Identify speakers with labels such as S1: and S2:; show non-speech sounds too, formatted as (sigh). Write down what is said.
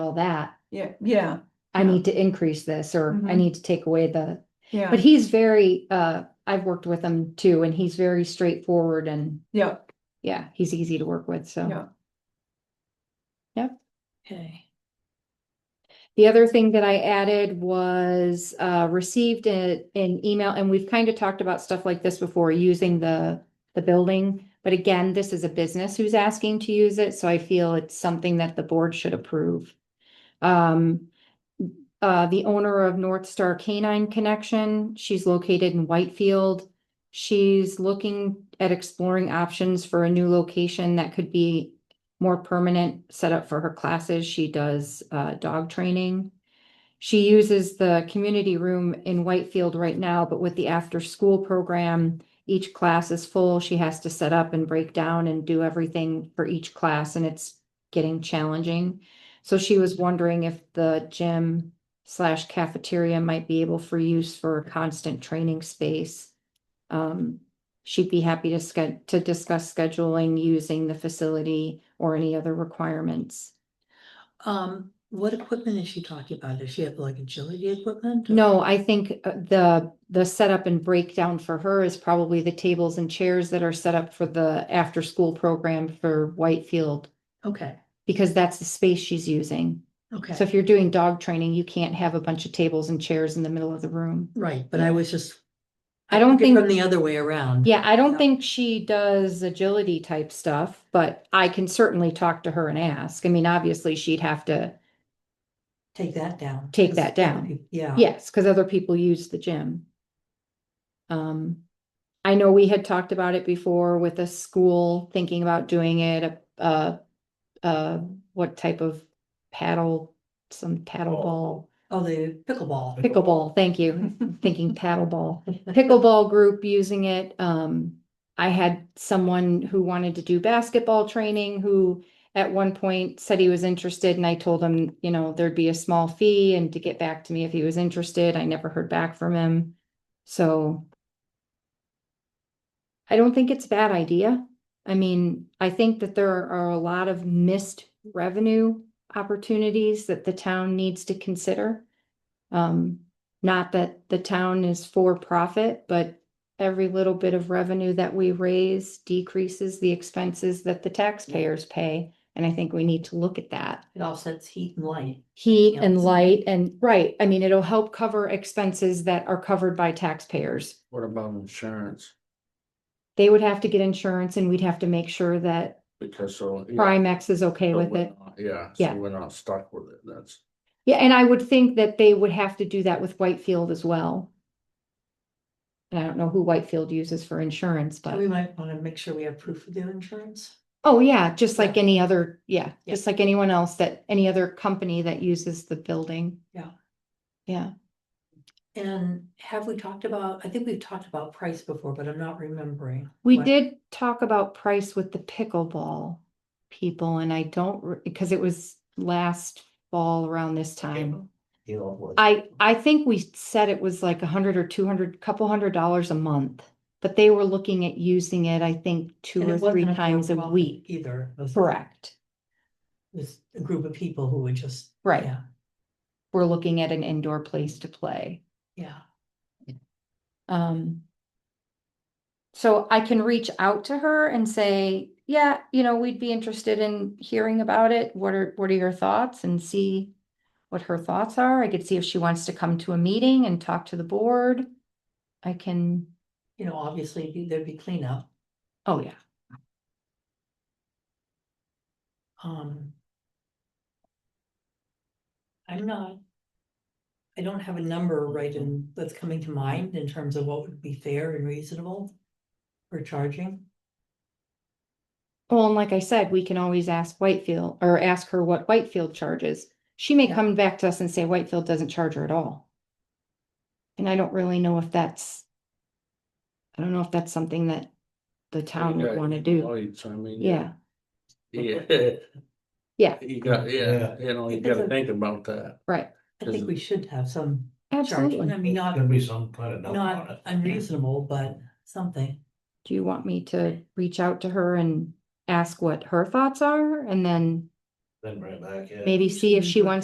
S1: all that,
S2: Yeah, yeah,
S1: I
S2: Yeah.
S1: need to increase this, or I
S2: Mhm.
S1: need to take away the,
S2: yeah,
S1: but he's very, uh, I've worked with him too, and he's very straightforward and,
S2: yeah,
S1: yeah, he's easy to work with, so.
S2: yeah.
S1: Okay. The other thing that I added was uh received a- an email, and we've kind of talked about stuff like this before, using the the building. But again, this is a business who's asking to use it, so I feel it's something that the board should approve. Um, uh, the owner of North Star Canine Connection, she's located in Whitefield. She's looking at exploring options for a new location that could be more permanent setup for her classes. She does uh, dog training. She uses the community room in Whitefield right now, but with the after-school program, each class is full. She has to set up and break down and do everything for each class, and it's getting challenging. So she was wondering if the gym slash cafeteria might be able for use for a constant training space. Um, she'd be happy to sched- to discuss scheduling using the facility or any other requirements.
S3: Um, what equipment is she talking about? Does she have like agility equipment? or-
S1: No, I think uh, the, the setup and breakdown for her is probably the tables and chairs that are set up for the after-school program for Whitefield,
S3: Okay,
S1: because that's the space she's using. So
S3: okay,
S1: if you're doing dog training, you can't have a bunch of tables and chairs in the middle of the room.
S3: right, but I was just.
S1: I don't
S3: took it
S1: think-
S3: From the other way around.
S1: Yeah, I don't
S3: Yeah.
S1: think she does agility type stuff, but I can certainly talk to her and ask. I mean, obviously, she'd have to
S3: Take that down.
S1: Take
S3: 'cause
S1: that
S3: other
S1: down.
S3: peop- Yeah.
S1: Yes, because other people use the gym. Um, I know we had talked about it before with a school thinking about doing it, uh, uh, what type of paddle, some paddle ball,
S3: Oh, the pickleball.
S1: pickleball, thank you, thinking paddle ball. Pickleball group using it, um, I had someone who wanted to do basketball training who at one point said he was interested and I told him, you know, there'd be a small fee and to get back to me if he was interested. I never heard back from him. So I don't think it's a bad idea. I mean, I think that there are a lot of missed revenue opportunities that the town needs to consider. Um, not that the town is for profit, but every little bit of revenue that we raise decreases the expenses that the taxpayers pay. And I think we need to look at that.
S3: It offsets heat and light.
S1: Heat
S3: Yeah.
S1: and light and, right, I mean, it'll help cover expenses that are covered by taxpayers.
S4: What about insurance?
S1: They would have to get insurance and we'd have to make sure that
S4: Because so. yeah,
S1: Primex is okay
S4: so
S1: with
S4: we're
S1: it.
S4: not- Yeah,
S1: Yeah.
S4: so we're not stuck with it, that's.
S1: Yeah, and I would think that they would have to do that with Whitefield as well. And I don't know who Whitefield uses for insurance,
S3: So
S1: but.
S3: we might want to make sure we have proof of their insurance.
S1: Oh, yeah, just
S3: Yeah.
S1: like any other, yeah,
S3: Yeah.
S1: just like anyone else that, any other company that uses the building.
S3: Yeah.
S1: Yeah,
S3: And have we talked about, I think we've talked about price before, but I'm not remembering.
S1: we
S3: what-
S1: did talk about price with the pickleball people and I don't, because it was last fall around this time. I, I think we said it was like a hundred or two hundred, couple hundred dollars a month, but they were looking at using it, I think, two
S3: And it
S1: or three
S3: wasn't
S1: times a
S3: overwhelming
S1: week.
S3: Either. It was-
S1: Correct.
S3: it was a group of people who would just.
S1: Right.
S3: yeah,
S1: We're looking at an indoor place to play.
S3: Yeah.
S1: Um. So I can reach out to her and say, yeah, you know, we'd be interested in hearing about it. What are, what are your thoughts and see what her thoughts are. I could see if she wants to come to a meeting and talk to the board. I can,
S3: You know, obviously be- there'd be cleanup.
S1: oh yeah,
S3: Um. I'm not. I don't have a number right in, that's coming to mind in terms of what would be fair and reasonable for charging.
S1: well, and like I said, we can always ask Whitefield or ask her what Whitefield charges. She may
S3: Yeah.
S1: come back to us and say Whitefield doesn't charge her at all. And I don't really know if that's. I don't know if that's something that the town
S4: Oh, You
S1: would
S4: got
S1: wanna do.
S4: employees, I mean.
S1: Yeah,
S4: Yeah. (laughs)
S1: Yeah.
S4: You got, yeah,
S5: Yeah.
S4: you know, you
S3: Because
S4: gotta
S3: of-
S4: think about that.
S1: right,
S3: I think we should have some charging, I
S1: absolutely.
S3: mean, not,
S5: Gonna be some kind of number on
S3: not
S5: it.
S3: unreasonable, but something.
S1: Do you want me to reach out to her and ask what her thoughts are and then
S2: Then bring it back, yeah.
S1: maybe see if she wants